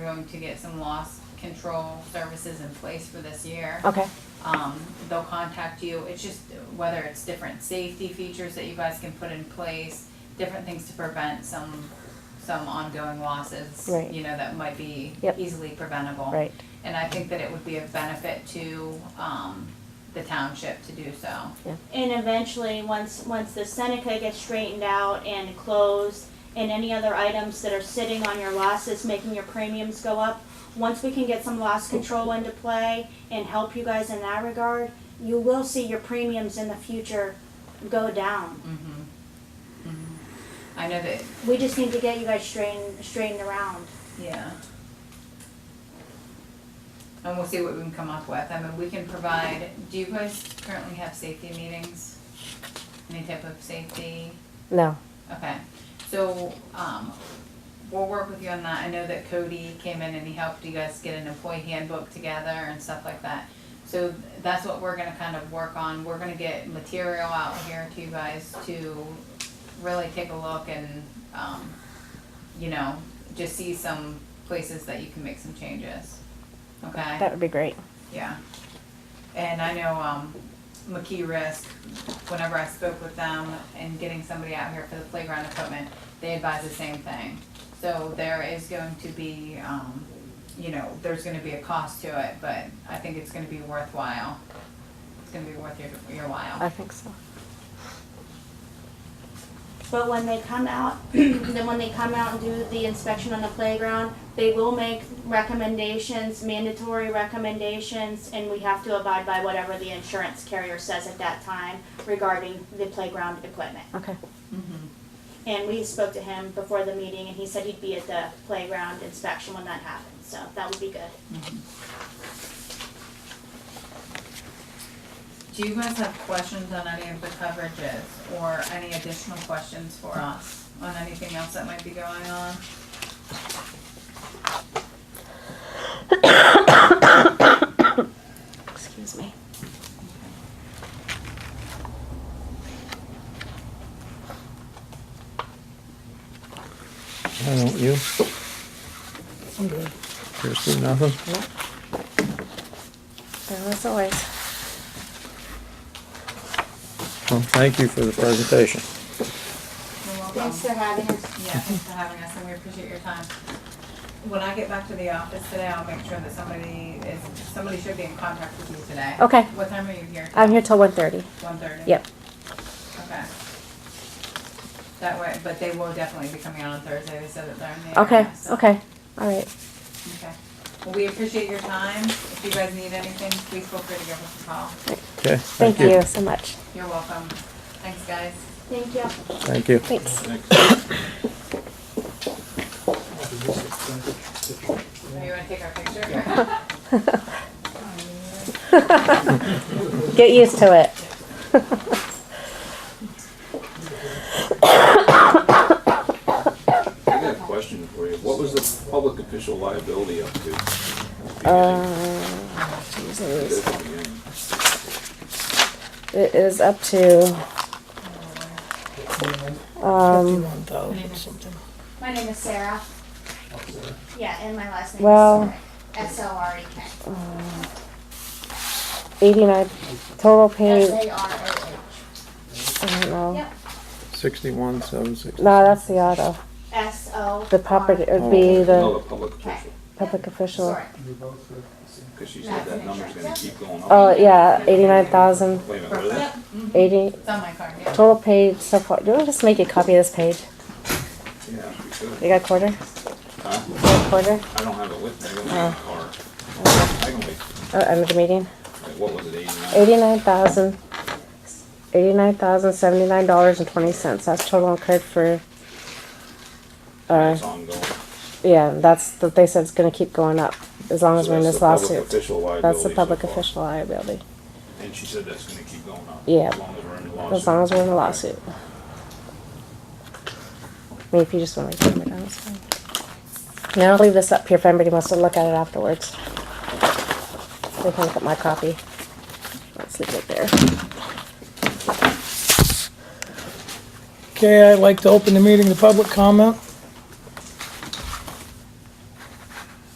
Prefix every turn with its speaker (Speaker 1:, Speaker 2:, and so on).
Speaker 1: going to get some loss control services in place for this year.
Speaker 2: Okay.
Speaker 1: Um, they'll contact you, it's just whether it's different safety features that you guys can put in place, different things to prevent some, some ongoing losses,
Speaker 2: Right.
Speaker 1: you know, that might be
Speaker 2: Yep.
Speaker 1: easily preventable.
Speaker 2: Right.
Speaker 1: And I think that it would be of benefit to, um, the township to do so.
Speaker 3: And eventually, once, once the Seneca gets straightened out and closed, and any other items that are sitting on your losses, making your premiums go up, once we can get some loss control into play and help you guys in that regard, you will see your premiums in the future go down.
Speaker 1: Mhm. Mhm. I know that,
Speaker 3: We just need to get you guys straightened, straightened around.
Speaker 1: yeah. And we'll see what we can come up with. I mean, we can provide, do you guys currently have safety meetings? Any type of safety?
Speaker 2: No.
Speaker 1: Okay, so, um, we'll work with you on that. I know that Cody came in and he helped you guys get an employee handbook together and stuff like that. So that's what we're gonna kind of work on. We're gonna get material out here to you guys to really take a look and, um, you know, just see some places that you can make some changes. Okay?
Speaker 2: That would be great.
Speaker 1: Yeah. And I know, um, McKee Risk, whenever I spoke with them and getting somebody out here for the playground equipment, they advise the same thing. So there is going to be, um, you know, there's gonna be a cost to it, but I think it's gonna be worthwhile. It's gonna be worth your, your
Speaker 2: I
Speaker 1: while.
Speaker 2: think so.
Speaker 3: But when they come out, then when they come out and do the inspection on the playground, they will make recommendations, mandatory recommendations, and we have to abide by whatever the insurance carrier says at that time regarding the playground equipment.
Speaker 2: Okay.
Speaker 1: Mhm.
Speaker 3: And we spoke to him before the meeting, and he said he'd be at the playground inspection when that happens, so that would be good.
Speaker 1: Do you guys have questions on any of the coverages or any additional questions for us on anything else that might be going on?
Speaker 2: Excuse me.
Speaker 4: I don't you. Christie, nothing?
Speaker 2: Well, as always.
Speaker 4: Well, thank you for the presentation.
Speaker 1: You're welcome.
Speaker 3: Thanks for having us.
Speaker 1: Yeah, thanks for having us, and we appreciate your time. When I get back to the office today, I'll make sure that somebody is, somebody should be in contact with you today.
Speaker 2: Okay.
Speaker 1: What time are you here?
Speaker 2: I'm here till 1.30.
Speaker 1: One thirty?
Speaker 2: Yep.
Speaker 1: Okay. That way, but they will definitely be coming out on Thursday, they said that they're in the
Speaker 2: Okay. Oh.
Speaker 1: area, so-
Speaker 2: Okay. All right.
Speaker 1: Okay. Well, we appreciate your time, if you guys need anything, please feel free to give us a call.
Speaker 4: Okay,
Speaker 2: Thank
Speaker 4: thank
Speaker 2: you
Speaker 4: you.
Speaker 2: so much.
Speaker 1: You're welcome, thanks, guys.
Speaker 3: Thank you.
Speaker 4: Thank you.
Speaker 2: Thanks.
Speaker 1: Oh, You wanna take our picture?
Speaker 2: Get used to it.
Speaker 5: I got a question for you. What was the public official liability up to?
Speaker 2: Uh, Jesus.
Speaker 5: Because
Speaker 2: It is up to um,
Speaker 3: My name is Sarah. Yeah, and my last name
Speaker 2: Well-
Speaker 3: is S O R E K.
Speaker 2: 89 total paid.
Speaker 3: S A R O H.
Speaker 2: I don't know.
Speaker 3: Yep.
Speaker 4: Sixty-one, seven sixty.
Speaker 2: No, that's the auto.
Speaker 3: S O.
Speaker 2: The property it would be
Speaker 5: No,
Speaker 2: the
Speaker 5: the public official,
Speaker 2: public official.
Speaker 3: Sorry.
Speaker 5: she said that number's gonna keep going up.
Speaker 2: Oh yeah, eighty-nine thousand
Speaker 5: Wait a minute, what is it?
Speaker 2: eighty
Speaker 1: It's on my card, yeah.
Speaker 2: total paid so far. Do you want to just make a copy of this page?
Speaker 5: Yeah, we
Speaker 2: You
Speaker 5: could.
Speaker 2: got a quarter? You
Speaker 5: Huh?
Speaker 2: got a quarter?
Speaker 5: I don't have it with me, I don't have a car. I can wait.
Speaker 2: Oh, end of the meeting.
Speaker 5: Wait, What was it, eighty-nine?
Speaker 2: Eighty-nine thousand, eighty-nine thousand seventy-nine dollars and twenty cents. That's total incurred for. Uh,
Speaker 5: It's ongoing.
Speaker 2: yeah, that's that they said it's going to keep going up as long as
Speaker 5: So
Speaker 2: we're in
Speaker 5: that's
Speaker 2: this
Speaker 5: the public
Speaker 2: lawsuit.
Speaker 5: official
Speaker 2: That's
Speaker 5: liability
Speaker 2: the
Speaker 5: so
Speaker 2: public
Speaker 5: far.
Speaker 2: official liability.
Speaker 5: And she said that's gonna keep going up.
Speaker 2: Yeah.
Speaker 5: As long as we're in the lawsuit.
Speaker 2: As long as we're in a lawsuit. I mean, if you just want to camera down, it's fine. Now I'll leave this up here if anybody wants to look at it afterwards. They can look at my copy. Let's leave it there.
Speaker 6: Okay, I'd like to open the meeting to public comment.